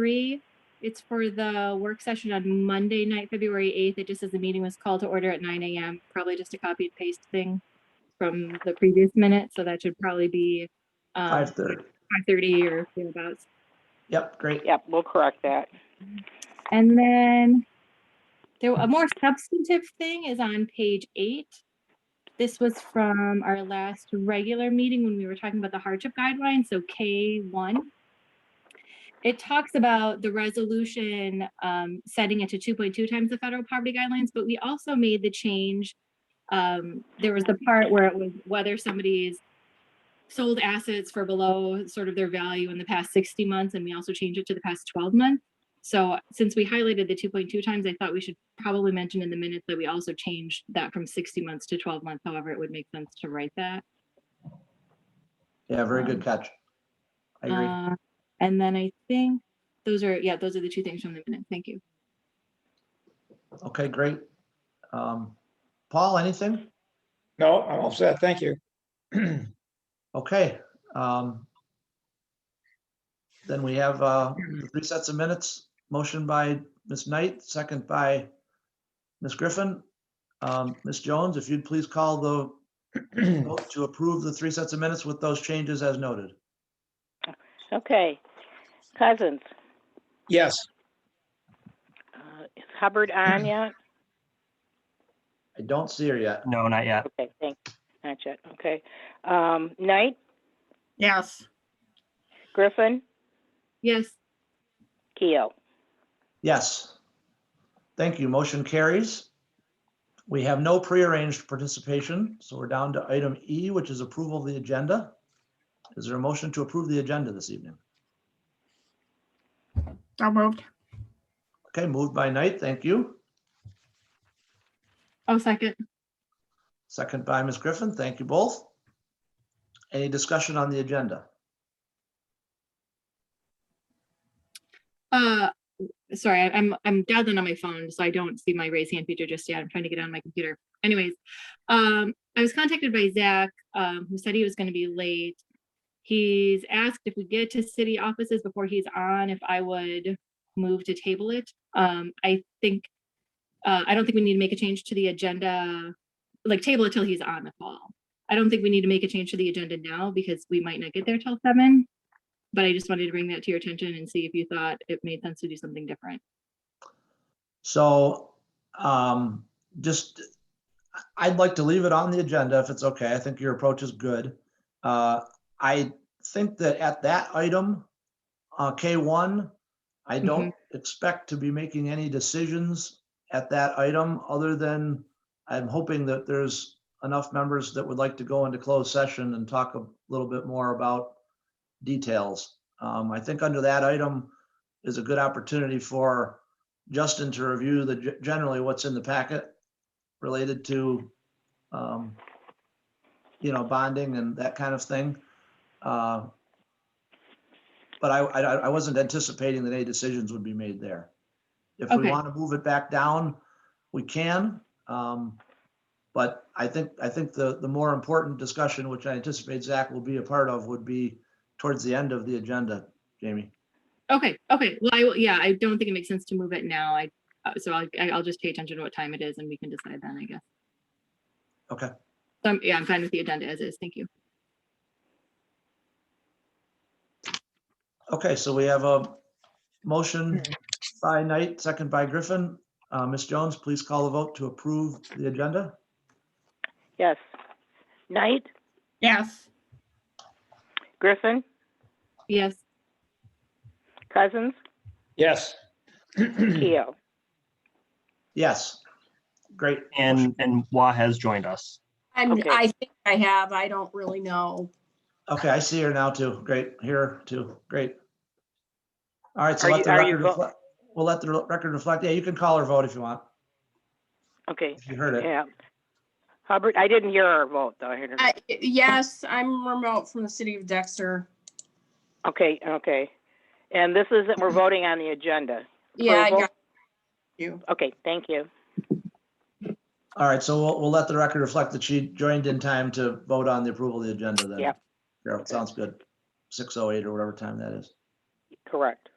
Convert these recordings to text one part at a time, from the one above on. three. It's for the work session on Monday night, February eighth. It just says the meeting was called to order at nine AM, probably just a copy and paste thing from the previous minute, so that should probably be um, Five thirty. five thirty or thereabouts. Yep, great. Yep, we'll correct that. And then there, a more substantive thing is on page eight. This was from our last regular meeting when we were talking about the hardship guidelines, so K one. It talks about the resolution, um, setting it to two point two times the federal poverty guidelines, but we also made the change. Um, there was the part where it was whether somebody's sold assets for below sort of their value in the past sixty months, and we also changed it to the past twelve months. So uh, since we highlighted the two point two times, I thought we should probably mention in the minutes that we also changed that from sixty months to twelve months, however, it would make sense to write that. Yeah, very good catch. I agree. Uh, And then I think those are, yeah, those are the two things from the minute. Thank you. Okay, great. Um, Paul, anything? No, I'm all set. Thank you. Okay. um, Then we have uh, the three sets of minutes, motion by Ms. Knight, second by Ms. Griffin. Um, Ms. Jones, if you'd please call the vote to approve the three sets of minutes with those changes as noted. Okay. Cousins, Yes, uh, is Hubbard on yet? I don't see her yet. No, not yet. Okay, thanks. Not yet, okay. Um, Knight, Yes, Griffin, Yes, Keo. Yes. Thank you. Motion carries. We have no prearranged participation, so we're down to item E, which is approval of the agenda. Is there a motion to approve the agenda this evening? so moved. Okay, moved by Knight, thank you. oh, second. Second by Ms. Griffin, thank you both. Any discussion on the agenda? Uh, sorry, I- I'm, I'm dabbling on my phone, so I don't see my raise hand feature just yet. I'm trying to get on my computer. Anyways, um, I was contacted by Zach, um, who said he was gonna be late. He's asked if we get to city offices before he's on, if I would move to table it. Um, I think, uh, I don't think we need to make a change to the agenda, like table it till he's on the call. I don't think we need to make a change to the agenda now because we might not get there till seven. But I just wanted to bring that to your attention and see if you thought it made sense to do something different. So um, just, I'd like to leave it on the agenda if it's okay. I think your approach is good. Uh, I think that at that item, uh, K1, I don't expect to be making any decisions at that item, other than I'm hoping that there's enough members that would like to go into closed session and talk a little bit more about details. Um, I think under that item is a good opportunity for Justin to review the, ge- generally what's in the packet related to, um, you know, bonding and that kind of thing. Uh, But I, I, I wasn't anticipating that any decisions would be made there. If we Okay. want to move it back down, we can. Um, But I think, I think the, the more important discussion, which I anticipate Zach will be a part of, would be towards the end of the agenda, Jamie. Okay, okay. Well, I, will- yeah, I don't think it makes sense to move it now. I, uh, so I'll, I- I'll just pay attention to what time it is and we can decide then, I guess. Okay. So I'm, yeah, I'm fine with the agenda as is. Thank you. Okay, so we have a motion by Knight, second by Griffin. Uh, Ms. Jones, please call the vote to approve the agenda. Yes. Knight, Yes, Griffin, Yes, Cousins, yes. Keo. Yes. Great. And and Wah has joined us. And Okay. I think I have, I don't really know. Okay, I see her now too. Great, here too. Great. All right, so Are let you- the are you record vo- reflect, we'll let the record reflect. Yeah, you can call her vote if you want, Okay, if you heard it. yeah. Hubbard, I didn't hear her vote, though. I heard her. I- Yes, I'm remote from the city of Dexter. Okay, okay. And this is, we're voting on the agenda. Yeah, I Approval? got you. Okay, thank you. All right, so we'll, we'll let the record reflect that she joined in time to vote on the approval of the agenda then. Yep. oh Yeah, sounds good. 6:08 or whatever time that is. Correct.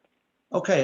Okay,